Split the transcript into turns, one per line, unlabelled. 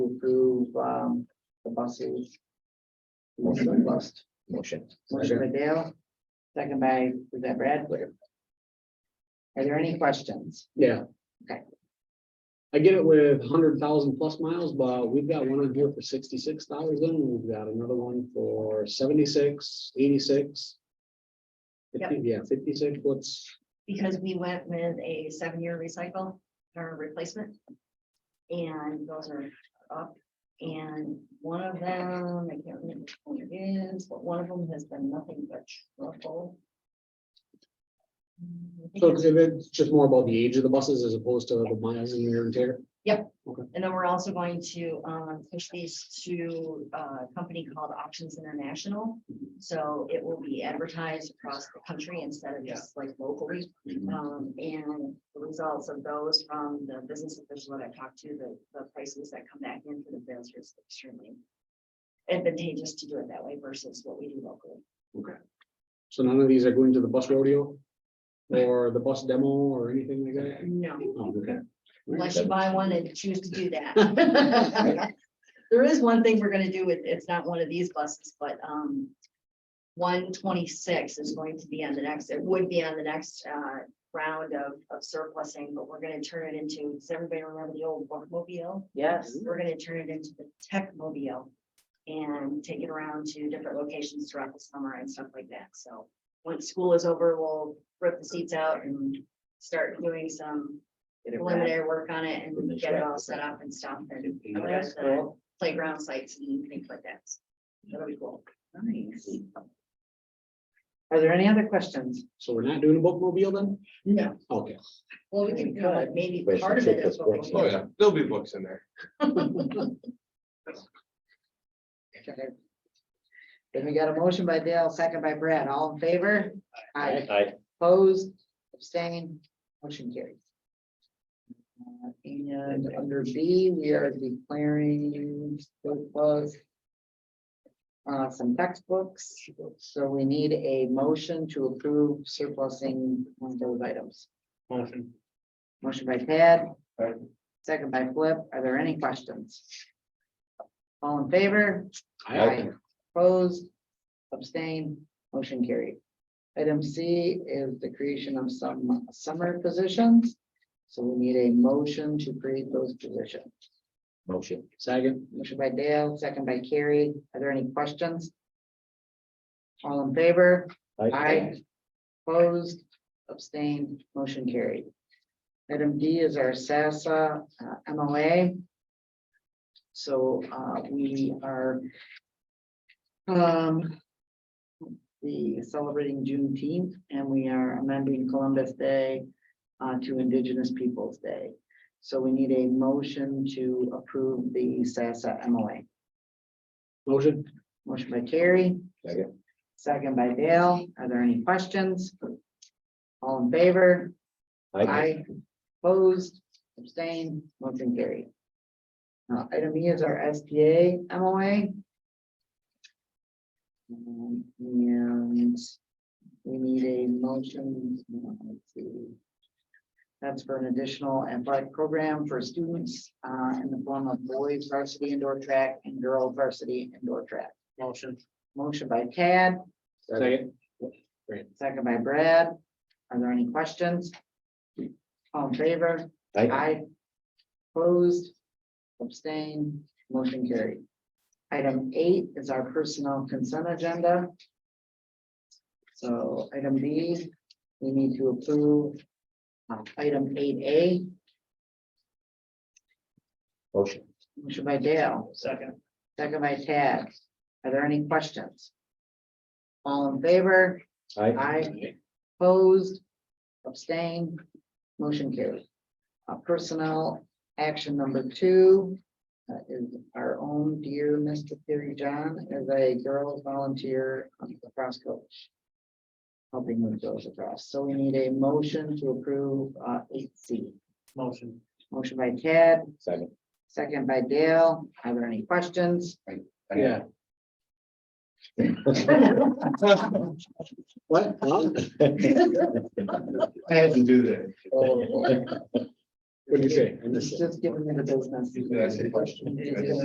approve, um, the buses.
Motion.
Bus.
Motion.
Motion by Dale, second by, was that Brad? Are there any questions?
Yeah.
Okay.
I get it with hundred thousand plus miles, but we've got one on here for sixty-six thousand, we've got another one for 76, 86.
Yep.
50 Yeah, fifty-six, what's,
because we went with a seven-year recycle or replacement. And those are up, and one of them, I can't remember which one it is, but one of them has been nothing but trouble. Mm, I think
so
it's-
if it's just more about the age of the buses as opposed to the miles and wear and tear?
And then we're also going to um push these to uh, a company called Options International. So it will be advertised across the country instead of just like locally. Um, and the results of those from the business official that I talked to, the, the prices that come back in for the bids is extremely advantageous to do it that way versus what we do locally.
So none of these are going to the bus rodeo? Or the bus demo or anything like that?
No,
Oh, okay.
unless you buy one and choose to do that. There is one thing we're gonna do with, it's not one of these buses, but, um, one twenty-six is going to be on the next, it would be on the next, uh, round of, of surplusing, but we're gonna turn it into, does everybody remember the old Mobile?
Yes.
We're gonna turn it into the tech mobile and take it around to different locations throughout the summer and stuff like that, so. Once school is over, we'll rip the seats out and start doing some
Get it, Brad.
preliminary work on it and get it all set up and stuff and
Oh, That's cool.
playground sites and things like that. That'll be cool.
Nice. Are there any other questions?
So we're not doing a bookmobile then?
No,
Okay.
well, we can, go, but maybe
Wait,
part of
so
it is
that's
what we
what's
can
Oh,
do.
yeah, there'll be books in there.
Okay. Then we got a motion by Dale, second by Brad, all in favor? Aye.
I,
Opposed, abstained, motion carries. Uh, And under B, we are declaring surplus. Uh, some textbooks, so we need a motion to approve surplusing one of those items.
Motion.
Motion by Tad, second by Flip, are there any questions? All in favor?
I,
Opposed, abstained, motion carried. Item C is the creation of some summer positions. So we need a motion to create those positions.
motion,
second,
Motion by Dale, second by Carrie. Are there any questions? All in favor?
I,
Opposed, abstained, motion carried. Item D is our SASSA uh, MOA. So uh, we are um, the celebrating Juneteenth, and we are amending Columbus Day uh, to Indigenous Peoples' Day. So we need a motion to approve the SASSA MOA.
motion,
Motion by Terry.
Second.
Second by Dale. Are there any questions? All in favor?
I,
Opposed, abstained, motion carried. Now, item E is our SPA MOA. Um, And we need a motion. uh, let's see. That's for an additional athletic program for students uh, in the form of boys varsity indoor track and girls varsity indoor track.
motion,
Motion by Tad,
second,
second by Brad. Are there any questions? All in favor?
I,
Aye. Opposed, abstained, motion carried. Item eight is our personnel consent agenda. So item B, we need to approve uh, item eight A,
motion,
motion by Dale. Second. Second by Tad. Are there any questions? All in favor?
I,
Aye. Opposed, abstained, motion carried. Uh, personnel action number two. uh, is our own dear Mr. Terry John is a girls volunteer lacrosse coach. Helping with girls across, so we need a motion to approve uh eight C.
motion.
Motion by Ted,
second.
second by Dale. Are there any questions?
Yeah. What? Huh?
I had to do that.
What
What'd you say? I missed
Just
it.
giving me the business.
Did I say question?
It is.